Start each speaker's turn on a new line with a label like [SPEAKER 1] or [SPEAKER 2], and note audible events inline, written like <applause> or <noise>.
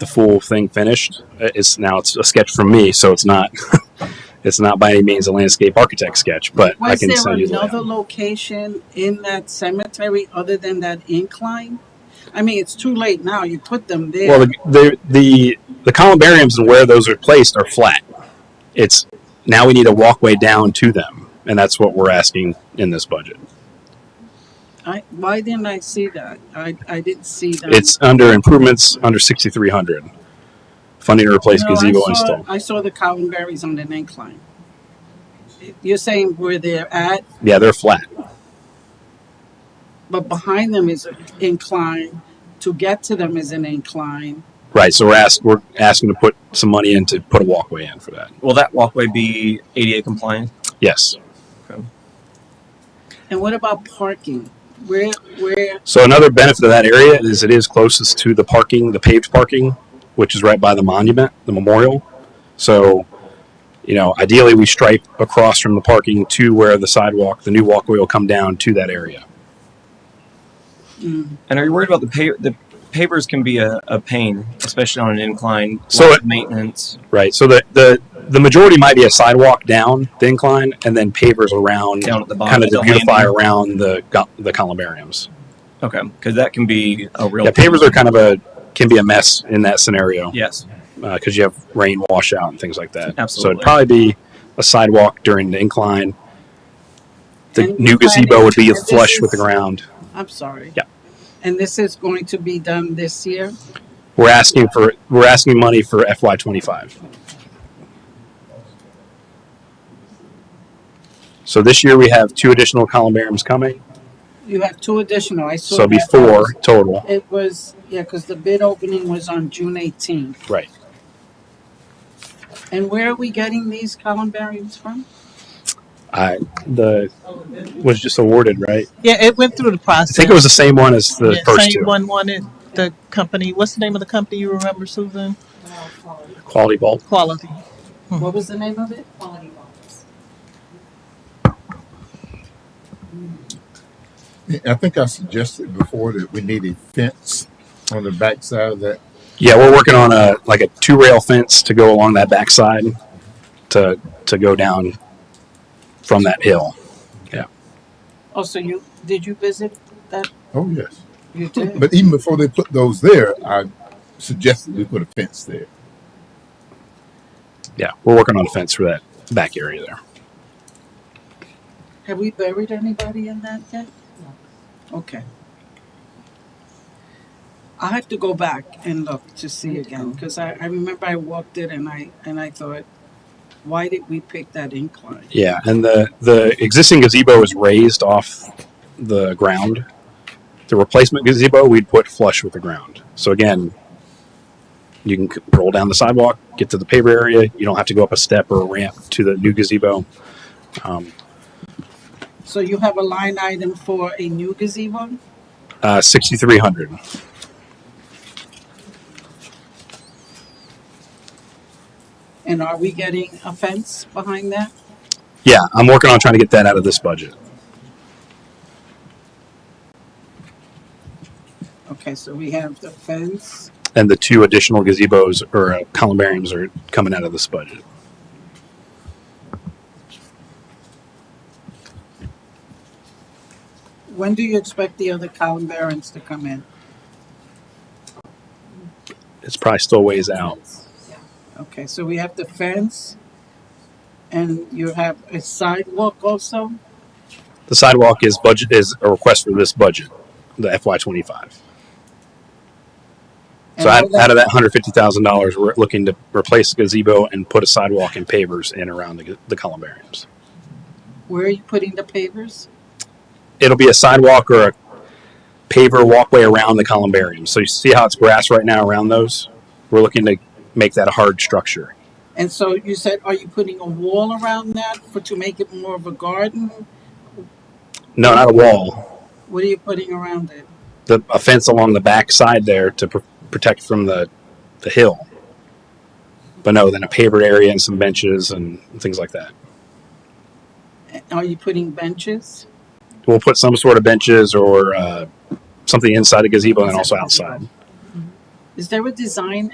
[SPEAKER 1] the full thing finished. Uh, It's now it's a sketch from me, so it's not <laughs> it's not by any means a landscape architect sketch, but I
[SPEAKER 2] Was
[SPEAKER 1] can
[SPEAKER 2] there
[SPEAKER 1] send you the
[SPEAKER 2] another
[SPEAKER 1] layout.
[SPEAKER 2] location in that cemetery other than that incline? I mean, it's too late now. You put them
[SPEAKER 1] Well, the,
[SPEAKER 2] there.
[SPEAKER 1] the the the columbariums and where those are placed are flat. It's now we need a walkway down to them, and that's what we're asking in this budget.
[SPEAKER 2] I, why didn't I see that? I, I didn't see that.
[SPEAKER 1] It's under improvements under sixty three hundred funding to replace
[SPEAKER 2] No, I
[SPEAKER 1] gazebo
[SPEAKER 2] saw-
[SPEAKER 1] install.
[SPEAKER 2] I saw the cowling berries on an incline. You're saying where they're at,
[SPEAKER 1] Yeah, they're flat.
[SPEAKER 2] but behind them is an incline. To get to them is an incline.
[SPEAKER 1] Right, so we're ask, we're asking to put some money in to put a walkway in for that.
[SPEAKER 3] Will that walkway be ADA compliant?
[SPEAKER 1] Yes.
[SPEAKER 2] And what about parking? Where, where,
[SPEAKER 1] So another benefit of that area is it is closest to the parking, the paved parking, which is right by the monument, the memorial. So, you know, ideally we stripe across from the parking to where the sidewalk, the new walkway will come down to that area.
[SPEAKER 3] And are you worried about the pa- the pavers can be a, a pain, especially on an incline.
[SPEAKER 1] So
[SPEAKER 3] lot
[SPEAKER 1] it-
[SPEAKER 3] of maintenance.
[SPEAKER 1] Right. So the the the majority might be a sidewalk down the incline and then pavers around
[SPEAKER 3] Down at the bottom
[SPEAKER 1] kind
[SPEAKER 3] of
[SPEAKER 1] of to
[SPEAKER 3] the
[SPEAKER 1] beautify
[SPEAKER 3] landing.
[SPEAKER 1] around the go- the columbariums.
[SPEAKER 3] Okay, because that can be a real.
[SPEAKER 1] Yeah, pavers are kind of a can be a mess in that scenario.
[SPEAKER 3] Yes.
[SPEAKER 1] because uh, you have rain washout and things like that. So
[SPEAKER 3] Absolutely.
[SPEAKER 1] it'd probably be a sidewalk during the incline. The
[SPEAKER 2] And
[SPEAKER 1] new
[SPEAKER 2] you're planning
[SPEAKER 1] gazebo would be
[SPEAKER 2] to- this
[SPEAKER 1] flush with the
[SPEAKER 2] is-
[SPEAKER 1] ground.
[SPEAKER 2] I'm sorry.
[SPEAKER 1] Yeah.
[SPEAKER 2] And this is going to be done this year?
[SPEAKER 1] We're asking for we're asking money for FY twenty five. So this year we have two additional columbariums coming,
[SPEAKER 2] You have two additional. I saw.
[SPEAKER 1] so it'll be
[SPEAKER 2] that.
[SPEAKER 1] four total.
[SPEAKER 2] It was, yeah, because the bid opening was on June eighteenth.
[SPEAKER 1] Right.
[SPEAKER 2] And where are we getting these columbariums from?
[SPEAKER 1] I the was just awarded, right?
[SPEAKER 4] Yeah, it went through the
[SPEAKER 1] I
[SPEAKER 4] process.
[SPEAKER 1] think it was the same one as the
[SPEAKER 4] Yeah,
[SPEAKER 1] first
[SPEAKER 4] same
[SPEAKER 1] two.
[SPEAKER 4] one wanted the company. What's the name of the company you remember, Susan?
[SPEAKER 1] Quality bulb.
[SPEAKER 4] Quality.
[SPEAKER 2] What was the name of it?
[SPEAKER 5] quality bonds.
[SPEAKER 6] I think I suggested before that we need a fence on the backside of that.
[SPEAKER 1] Yeah, we're working on a like a two rail fence to go along that backside to to go down from that hill.
[SPEAKER 2] Oh, so you, did you visit that?
[SPEAKER 6] Oh, yes.
[SPEAKER 1] <laughs>
[SPEAKER 2] You did?
[SPEAKER 6] But even before they put those there, I suggested we put a fence there.
[SPEAKER 1] Yeah, we're working on a fence for that back area there.
[SPEAKER 2] Have we buried anybody in that yet? Okay. I have to go back and look to see again, because I, I remember I walked it and I, and I thought, why did we pick that incline?
[SPEAKER 1] Yeah, and the the existing gazebo is raised off the ground. The replacement gazebo we'd put flush with the ground. So again, you can c- roll down the sidewalk, get to the paver area. You don't have to go up a step or a ramp to the new gazebo. Um,
[SPEAKER 2] So you have a line item for a new gazebo?
[SPEAKER 1] uh, Sixty three hundred.
[SPEAKER 2] And are we getting a fence behind that?
[SPEAKER 1] Yeah, I'm working on trying to get that out of this budget.
[SPEAKER 2] Okay, so we have the fence.
[SPEAKER 1] and the two additional gazebos or uh, columbariums are coming out of this budget.
[SPEAKER 2] When do you expect the other columbarians to come in?
[SPEAKER 1] It's probably still ways out.
[SPEAKER 2] Okay, so we have the fence and you have a sidewalk also?
[SPEAKER 1] The sidewalk is budget is a request for this budget, the FY twenty five.
[SPEAKER 2] And
[SPEAKER 1] So out,
[SPEAKER 2] all that-
[SPEAKER 1] out of that hundred fifty thousand dollars, we're looking to replace the gazebo and put a sidewalk and pavers in around the, the columbariums.
[SPEAKER 2] Where are you putting the pavers?
[SPEAKER 1] It'll be a sidewalk or a paver walkway around the columbariums. So you see how it's grass right now around those. We're looking to make that a hard structure.
[SPEAKER 2] And so you said, are you putting a wall around that for, to make it more of a garden?
[SPEAKER 1] No, not a wall.
[SPEAKER 2] What are you putting around it?
[SPEAKER 1] the a fence along the back side there to pr- protect from the the hill. But no, then a pavered area and some benches and things like that.
[SPEAKER 2] Are you putting benches?
[SPEAKER 1] We'll put some sort of benches or uh, something inside the gazebo and also outside.
[SPEAKER 2] Is there a design